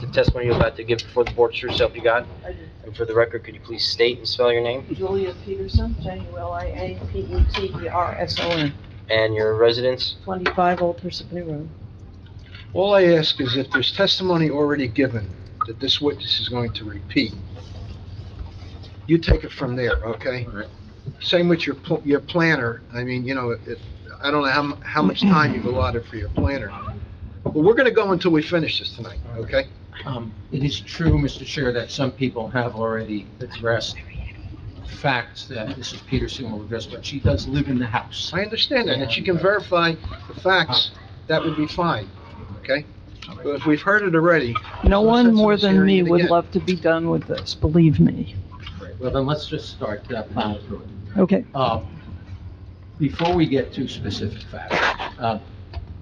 the testimony you're about to give before the board true self you got? I did. And for the record, could you please state and spell your name Julia Peterson, E J-U-L-I-A-P-E-T-E-R-S-O-N, and your residence? 25 Old Parsippany Road. All I ask is if there's testimony already given that this witness is going to repeat, you take it from there, okay? Alright. Same with your, pl- your planner, I mean, you know, it, I don't know how, mu- how much time you've allotted for your planner. But we're gonna go until we finish this tonight, okay? Um, It is true, Mr. Chair, that some people have already addressed facts that Mrs. Peterson will address, but she does live in the house. I understand that, and if you can verify the facts, that would be fine, okay? But if we've heard it already, No Well, one since more it's than hearing me it would again. love to be done with this, believe me. Right, Well, then let's just start uh, plowing through it. Okay, Uh, Before we get to specific facts, uh,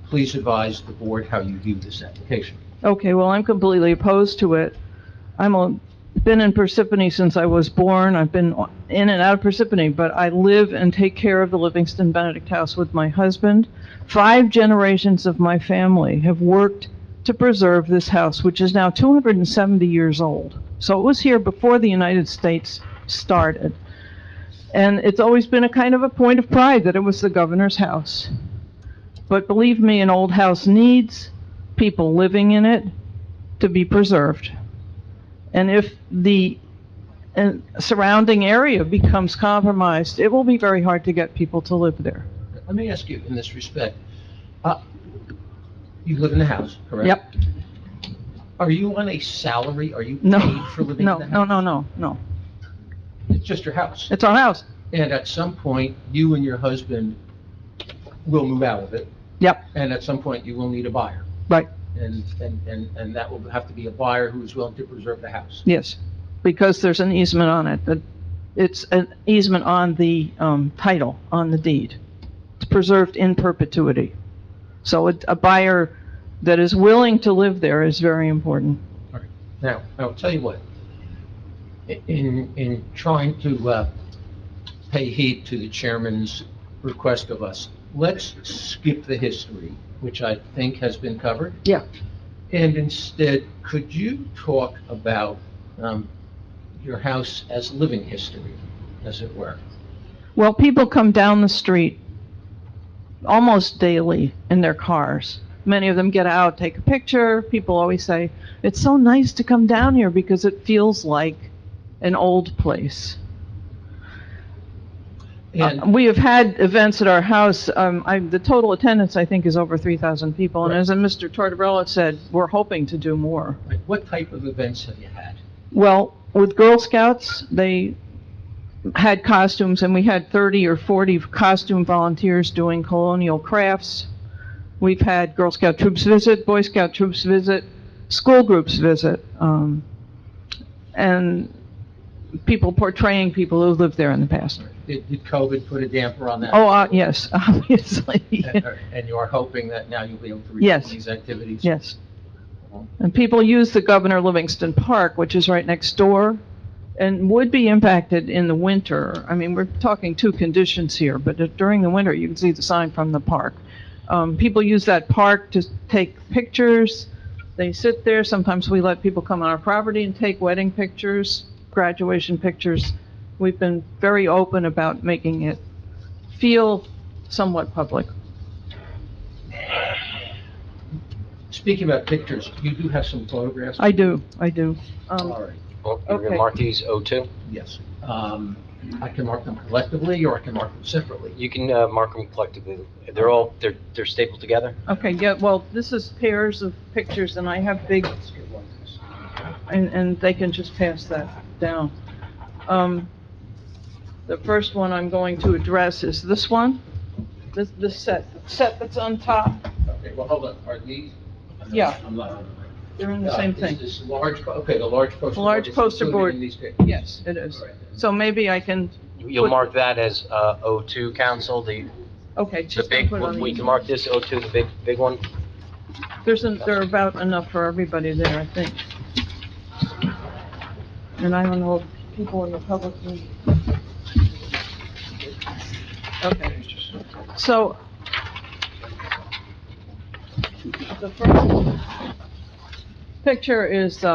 please advise the board how you view this application. okay, well, I'm completely opposed to it. I'm a, been in Parsippany since I was born, I've been in and out of Parsippany, but I live and take care of the Livingston Benedict House with my husband. Five generations of my family have worked to preserve this house, which is now 270 years old. So it was here before the United States started. And it's always been a kind of a point of pride that it was the governor's house. But believe me, an old house needs people living in it to be preserved. And if the uh, surrounding area becomes compromised, it will be very hard to get people to live there. Let me ask you in this respect, uh, you live in the house, correct? Yep. Are you on a salary? Are you No, paid for living no, in the no, house? no, no, no. It's just your house. It's our house. And at some point, you and your husband will move out of it, Yep, and at some point, you will need a buyer. right, And, and, and, and that will have to be a buyer who is willing to preserve the house. yes. Because there's an easement on it, that it's an easement on the um, title, on the deed. It's preserved in perpetuity. So it- a buyer that is willing to live there is very important. Now, I'll tell you what, i- in, in trying to, uh, pay heed to the chairman's request of us, let's skip the history, which I think has been covered. Yeah. And instead, could you talk about, um, your house as living history, as it were? Well, people come down the street almost daily in their cars. Many of them get out, take a picture. People always say, it's so nice to come down here because it feels like an old place. And Uh, we have had events at our house. Um, I, the total attendance, I think, is over 3,000 people. And Right. as uh, Mr. Tortorella said, we're hoping to do more. Like, What type of events have you had? Well, with Girl Scouts, they had costumes, and we had 30 or 40 costume volunteers doing colonial crafts. We've had Girl Scout troops visit, Boy Scout troops visit, school groups visit, um, and people portraying people who lived there in the past. Did did COVID put a damper on that? Oh, uh, yes, obviously, And uh, and you are hoping that now you'll be able to resume Yes. these activities? yes. And people use the Governor Livingston Park, which is right next door, and would be impacted in the winter. I mean, we're talking two conditions here, but during the winter, you can see the sign from the park. Um, people use that park to take pictures. They sit there. Sometimes we let people come on our property and take wedding pictures, graduation pictures. We've been very open about making it feel somewhat public. Speaking about pictures, you do have some photographs? I do, I do. Um, All right, Well, You're going Okay. to mark these O2? yes. Um, I can mark them collectively, or I can mark them separately. You can uh, mark them collectively. They're all, they're they're stapled together? Okay, yeah, well, this is pairs of pictures, and I have big, Let's get one of these. and, and they can just pass that down. Um, the first one I'm going to address is this one, this, this set, the set that's on top, Okay, well, hold on, are these? Yeah. I'm not- they're in the Uh, same is thing. This large, po- okay, the large poster board. Large is poster included board. in these pictures. Yes, it is. All right, then. So maybe I can, You'll Put- mark that as uh, O2, council, the okay, the just gonna big, put it on we can the, mark this O2, the big, big one? there's, an- there are about enough for everybody there, I think. And I don't know if people in the public need. Okay. So. The first, picture is, uh,